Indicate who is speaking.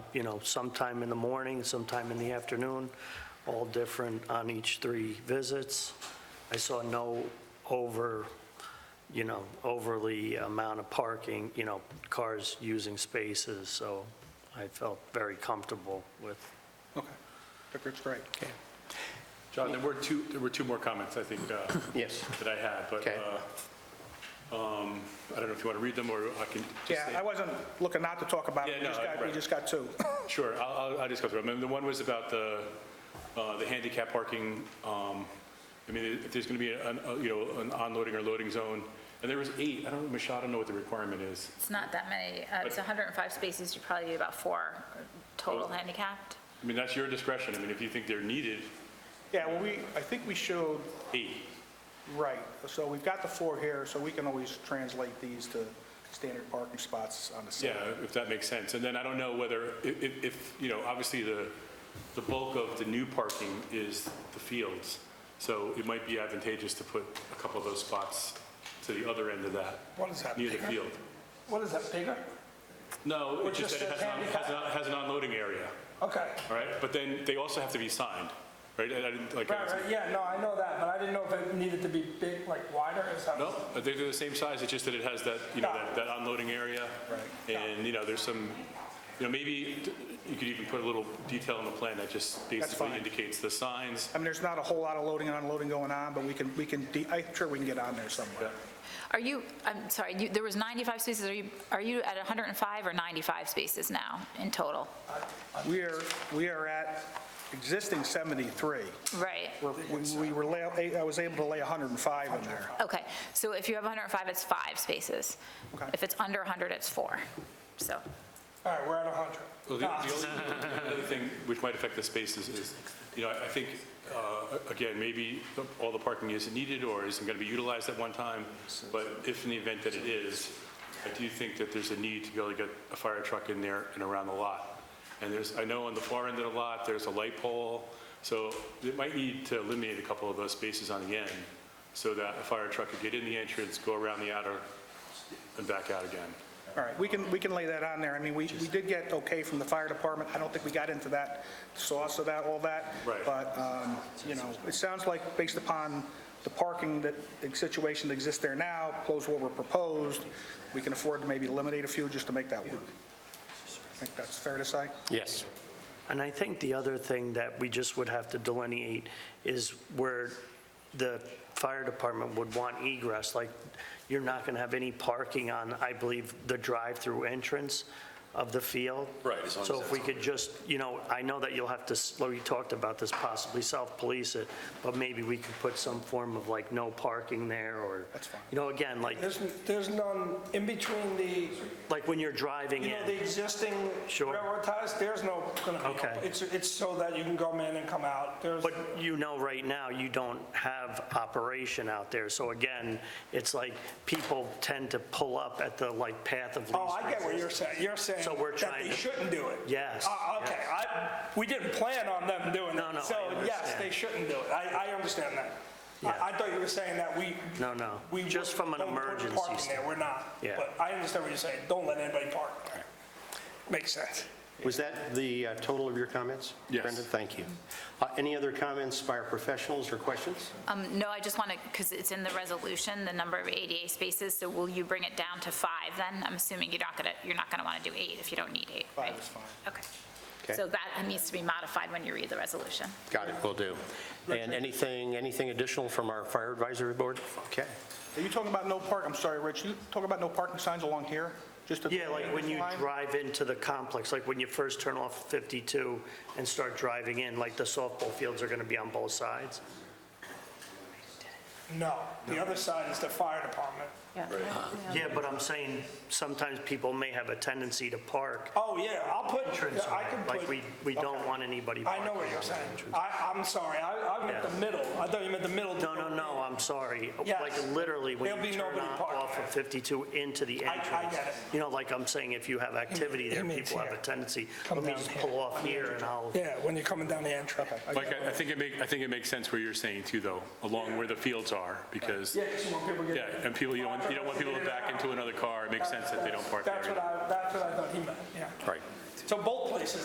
Speaker 1: you know, sometime in the morning, sometime in the afternoon, all different on each three visits. I saw no over, you know, overly amount of parking, you know, cars using spaces, so I felt very comfortable with.
Speaker 2: Okay, that group's great.
Speaker 3: John, there were two, there were two more comments, I think, uh,
Speaker 4: Yes.
Speaker 3: that I had, but
Speaker 4: Okay.
Speaker 3: uh, um, I don't know if you want to read them, or I can just
Speaker 2: Yeah,
Speaker 3: say...
Speaker 2: I wasn't looking not to talk about it,
Speaker 3: Yeah,
Speaker 2: we
Speaker 3: no,
Speaker 2: just got, we
Speaker 3: right.
Speaker 2: just got two.
Speaker 3: Sure, I'll, I'll- I'll just go through them. And The one was about the, uh, the handicap parking. um, I mean, if there's going to be, an, uh, you know, an unloading or loading zone, and there was eight, I don't, know, Michelle, I don't know what the requirement is.
Speaker 5: It's not that many. Uh, It's 105 spaces, you probably need about four total
Speaker 3: Total.
Speaker 5: handicapped.
Speaker 3: I mean, that's your discretion. I mean, if you think they're needed,
Speaker 2: Yeah, well, we, I think we showed,
Speaker 3: eight.
Speaker 2: right, so we've got the four here, so we can always translate these to standard parking spots on the
Speaker 3: Yeah,
Speaker 2: side.
Speaker 3: if that makes sense. And then I don't know whether, if- if, if, you know, obviously the, the bulk of the new parking is the fields. So it might be advantageous to put a couple of those spots to the other end of that.
Speaker 2: What is that,
Speaker 3: Near the
Speaker 2: bigger?
Speaker 3: field.
Speaker 2: What is that, bigger?
Speaker 3: No,
Speaker 2: Or
Speaker 3: it just
Speaker 2: just
Speaker 3: that it
Speaker 2: a
Speaker 3: has an-
Speaker 2: handicap?
Speaker 3: has an, has an unloading area,
Speaker 2: Okay,
Speaker 3: all right? But then they also have to be signed, right? And I didn't, like,
Speaker 2: yeah, no, I know that, but I didn't know if it needed to be big, like wider, is that?
Speaker 3: no, they're the same size, it's just that it has that, you know,
Speaker 2: Got
Speaker 3: that,
Speaker 2: it.
Speaker 3: that unloading area.
Speaker 2: Right.
Speaker 3: And, you know, there's some, you know, maybe t- you could even put a little detail on the plan that just basically
Speaker 2: fine.
Speaker 3: indicates the signs.
Speaker 2: I mean, there's not a whole lot of loading and unloading going on, but we can, we can, de- I'm sure we can get on there somewhere.
Speaker 5: Are you, I'm sorry, you- there was 95 spaces, are you, are you at 105 or 95 spaces now in total?
Speaker 2: We are, we are at existing 73.
Speaker 5: Right.
Speaker 2: We're- we- We were, lay- I was able to lay 105 in there.
Speaker 5: Okay, so if you have 105, it's five spaces.
Speaker 2: Okay.
Speaker 5: If it's under 100, it's four. So,
Speaker 2: All right, we're at 100.
Speaker 3: Well, the the only the other thing which might affect the spaces is, you know, I I think, uh, again, maybe the- all the parking isn't needed or isn't going to be utilized at one time, but if in the event that it is, I do think that there's a need to be able to get a fire truck in there and around the lot. And there's, I know on the far end of the lot, there's a light pole, so it might need to eliminate a couple of those spaces on the end so that a fire truck could get in the entrance, go around the outer, and back out again.
Speaker 2: All right, we can, we can lay that on there. I mean, we, we did get okay from the fire department. I don't think we got into that sauce of that, all that.
Speaker 3: Right.
Speaker 2: But, um, you know, it sounds like based upon the parking that, the situation that exists there now, plus what were proposed, we can afford to maybe eliminate a few just to make that work. I think that's fair to say.
Speaker 4: Yes.
Speaker 1: And I think the other thing that we just would have to delineate is where the fire department would want egress, like, you're not going to have any parking on, I believe, the drive-through entrance of the field.
Speaker 6: Right, as long
Speaker 1: So
Speaker 6: as
Speaker 1: if we could just, you know, I know that you'll have to, s- we talked about this, possibly self-police it, but maybe we could put some form of like, no parking there, or, you know, again, like,
Speaker 7: There's, there's none in between the,
Speaker 1: like when you're driving
Speaker 7: you know, the
Speaker 1: in.
Speaker 7: existing
Speaker 1: Sure.
Speaker 7: railroad ties, there's no, gonna be-
Speaker 1: Okay.
Speaker 7: it's, it's so that you can come in and come out. There's,
Speaker 1: But you know, right now, you don't have operation out there. So again, it's like people tend to pull up at the like path of least.
Speaker 7: oh, I get what you're saying. You're saying
Speaker 1: So we're
Speaker 7: that
Speaker 1: trying
Speaker 7: they
Speaker 1: to-
Speaker 7: shouldn't do it.
Speaker 1: Yes,
Speaker 7: Oh, okay. I, we didn't plan on them doing it.
Speaker 1: No, no, I
Speaker 7: So yes,
Speaker 1: understand.
Speaker 7: they shouldn't do it. I, I understand that.
Speaker 1: Yeah.
Speaker 7: I, I thought you were saying that we.
Speaker 1: No, no.
Speaker 7: we
Speaker 1: Just from an
Speaker 7: don't put
Speaker 1: emergency
Speaker 7: parking there.
Speaker 1: stand-
Speaker 7: We're not.
Speaker 1: Yeah.
Speaker 7: But I understand what you're saying. Don't let anybody park there. Makes sense.
Speaker 4: Was that the uh, total of your comments?
Speaker 3: Yes.
Speaker 4: Brendan, thank you. Uh, Any other comments by our professionals or questions?
Speaker 5: um, no, I just want to, because it's in the resolution, the number of ADA spaces, so will you bring it down to five then? I'm assuming you're not going to, you're not going to want to do eight if you don't need eight, right?
Speaker 2: Five is fine.
Speaker 5: Okay.
Speaker 4: Okay.
Speaker 5: So that needs to be modified when you read the resolution.
Speaker 4: Got it, we will do. And anything, anything additional from our fire advisory board? Okay.
Speaker 2: Are you talking about no park, I'm sorry, Rich, you talking about no parking signs along here? Just at the
Speaker 1: Yeah, like when you
Speaker 2: line?
Speaker 1: drive into the complex, like when you first turn off 52 and start driving in, like the softball fields are going to be on both sides.
Speaker 7: No. The other side is the fire department.
Speaker 1: Yeah, but I'm saying sometimes people may have a tendency to park
Speaker 7: Oh, yeah, I'll put,
Speaker 1: entrance.
Speaker 7: I can
Speaker 1: Like we,
Speaker 7: put,
Speaker 1: we don't want anybody
Speaker 7: I
Speaker 1: parking.
Speaker 7: know what you're
Speaker 1: on the
Speaker 7: saying.
Speaker 1: entrance.
Speaker 7: I, I'm sorry, I, I meant
Speaker 1: Yeah.
Speaker 7: the middle. I thought you meant the middle.
Speaker 1: No, no, no, I'm sorry.
Speaker 7: Yes.
Speaker 1: Like literally when
Speaker 7: There'll
Speaker 1: you
Speaker 7: be
Speaker 1: turn
Speaker 7: nobody
Speaker 1: on-
Speaker 7: parked
Speaker 1: off of
Speaker 7: there.
Speaker 1: 52 into the
Speaker 7: I- I
Speaker 1: entrance.
Speaker 7: get it.
Speaker 1: You know, like I'm saying, if you have activity there,
Speaker 7: means
Speaker 1: people have a
Speaker 7: here.
Speaker 1: tendency,
Speaker 7: Come
Speaker 1: let me
Speaker 7: down
Speaker 1: just
Speaker 7: here.
Speaker 1: pull off here and I'll,
Speaker 7: Yeah, when you're coming down the entry.
Speaker 3: Like, I- I think it make, I think it makes sense where you're saying too, though, along where the fields are, because,
Speaker 7: Yeah, 'cause you want people to
Speaker 3: yeah,
Speaker 7: get.
Speaker 3: and people, you don't, want- you don't want people to back into another car. It makes sense that they don't park there.
Speaker 7: That's
Speaker 3: either.
Speaker 7: what I, that's what I thought he meant, yeah.
Speaker 4: All right.
Speaker 7: So both places,